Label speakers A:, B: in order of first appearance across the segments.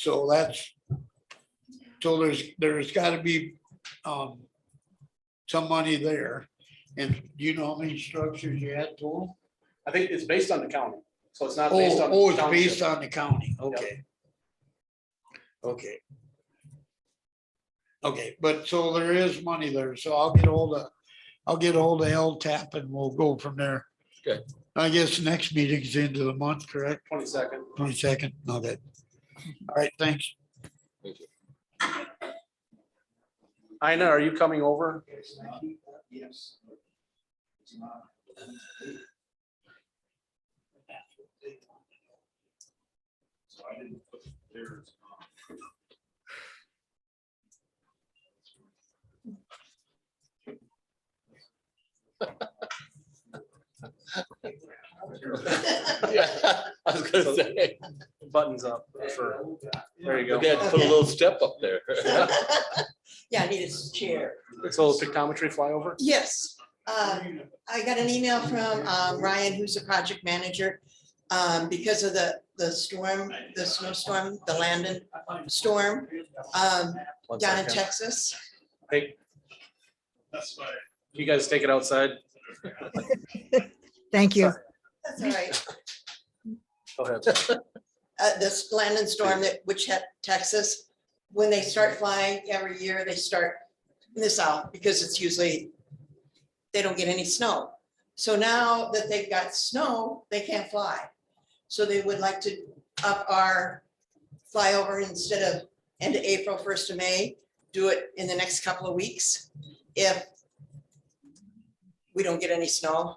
A: So that's, so there's, there's gotta be, um, some money there. And do you know how many structures you had total?
B: I think it's based on the county, so it's not based
A: Oh,
B: on.
A: oh, it's
B: township.
A: based on the county, okay. Okay. Okay, but so there is money there, so I'll get hold of, I'll get hold of L tap and we'll go from there.
C: Okay.
A: I guess next meeting's the end of the month, correct?
B: Twenty-second.
A: Twenty-second, okay. All right, thanks.
C: Thank you.
B: Ina, are you coming over?
A: Yes.
B: So I didn't put theirs on.
C: Yeah, I was gonna say,
B: Buttons up for, there you go.
C: you gotta put a little step up there.
D: Yeah, I need a chair.
B: It's a little pictometry flyover.
D: Yes, uh, I got an email from um, Ryan, who's the project manager. Um, Because of the, the storm, the snowstorm, the Landon storm um,
B: One
D: down in
B: second.
D: Texas.
B: Hey. You guys take it outside.
E: Thank you.
D: That's all right.
B: Go ahead.
D: Uh, This Landon storm that, which hit Texas, when they start flying every year, they start in the south because it's usually, they don't get any snow. So now that they've got snow, they can't fly. So they would like to up our flyover instead of end of April, first of May, do it in the next couple of weeks if we don't get any snow.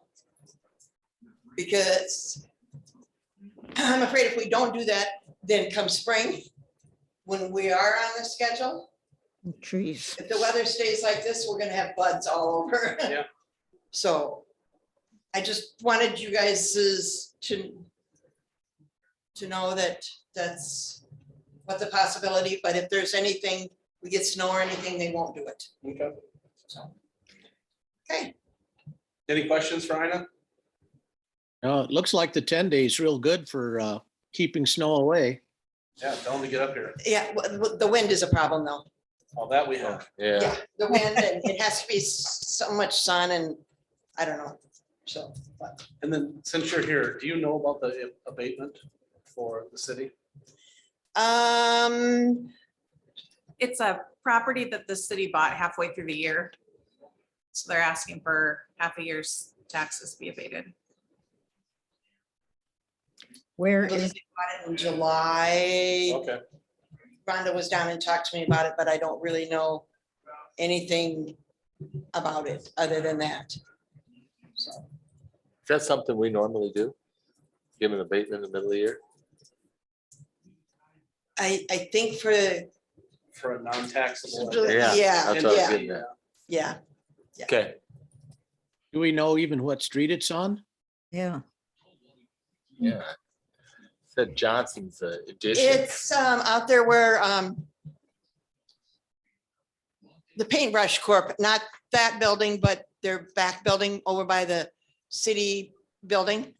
D: Because I'm afraid if we don't do that, then come spring, when we are on the schedule,
E: Trees.
D: if the weather stays like this, we're gonna have buds all over.
B: Yeah.
D: So I just wanted you guys to to know that that's what's a possibility, but if there's anything, we get snow or anything, they won't do it.
B: Okay.
D: Okay,
B: Any questions for Ina?
F: No, Uh, it looks like the ten days real good for uh keeping snow away.
B: Yeah, tell them to get up here.
D: yeah, w- w- the wind is a problem though.
B: All that we have.
C: Yeah,
D: Yeah, the wind and it has to be s- so much sun and I don't know, so. but-
B: And then since you're here, do you know about the abatement for the city?
D: Um,
G: It's a property that the city bought halfway through the year. So they're asking for half a year's taxes be abated.
E: Where
D: I believe
E: is,
D: they bought it in July,
B: Okay,
D: Rhonda was down and talked to me about it, but I don't really know anything about it other than that. So,
C: is that something we normally do? Give an abatement in the middle of the year?
D: I, I think for,
B: for a non-taxable.
C: Yeah,
D: yeah,
C: That's what I was
D: yeah.
C: getting at.
D: yeah,
C: Okay,
F: Do we know even what street it's on?
E: yeah,
C: yeah. Said Johnson's uh, addition.
D: it's, um, out there where, um, the paintbrush corp, not that building, but their back building over by the city building,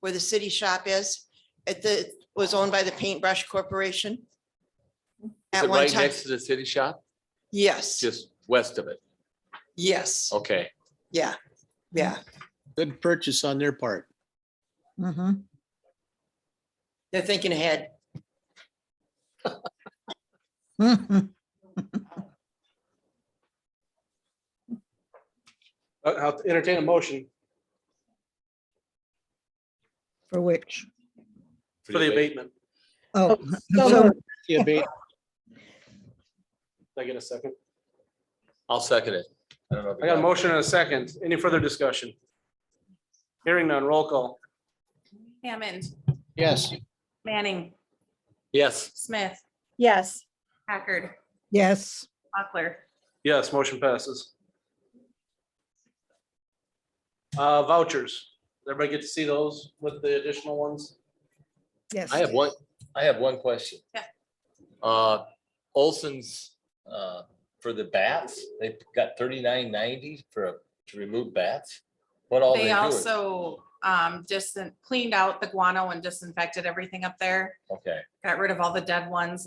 D: where the city shop is, it, the, was owned by the paintbrush corporation.
C: Is
D: At
C: it
D: one
C: right
D: time,
C: next to the city shop?
D: yes,
C: Just Oh. west of it?
D: yes,
C: Okay.
D: yeah, yeah,
F: Good purchase on their part.
E: hmm
D: they're thinking ahead.
E: mm-hmm.
B: Uh, I'll entertain a motion
E: for which,
B: for the abatement.
E: oh.
D: so
E: so-
F: The abate-
B: Did I get a second?
C: I'll second it. I don't know. if
B: I
C: you
B: got a motion and a second. Any further discussion? Hearing none, roll call.
G: Hammond,
F: Yes,
G: Manning,
C: Yes,
G: Smith,
H: Yes,
G: Packard,
E: Yes,
G: Buckler.
B: Yes, motion passes. Uh, vouchers. Did Everybody get to see those with the additional ones?
E: yes.
C: I have one, I have one question.
G: Yeah.
C: Uh, Olson's, uh, for the bats, they got thirty-nine ninety for, a- to remove bats? What all they
G: They
C: doing?
G: also um, distant, cleaned out the guano and disinfected everything up there.
C: Okay.
G: Got rid of all the dead ones,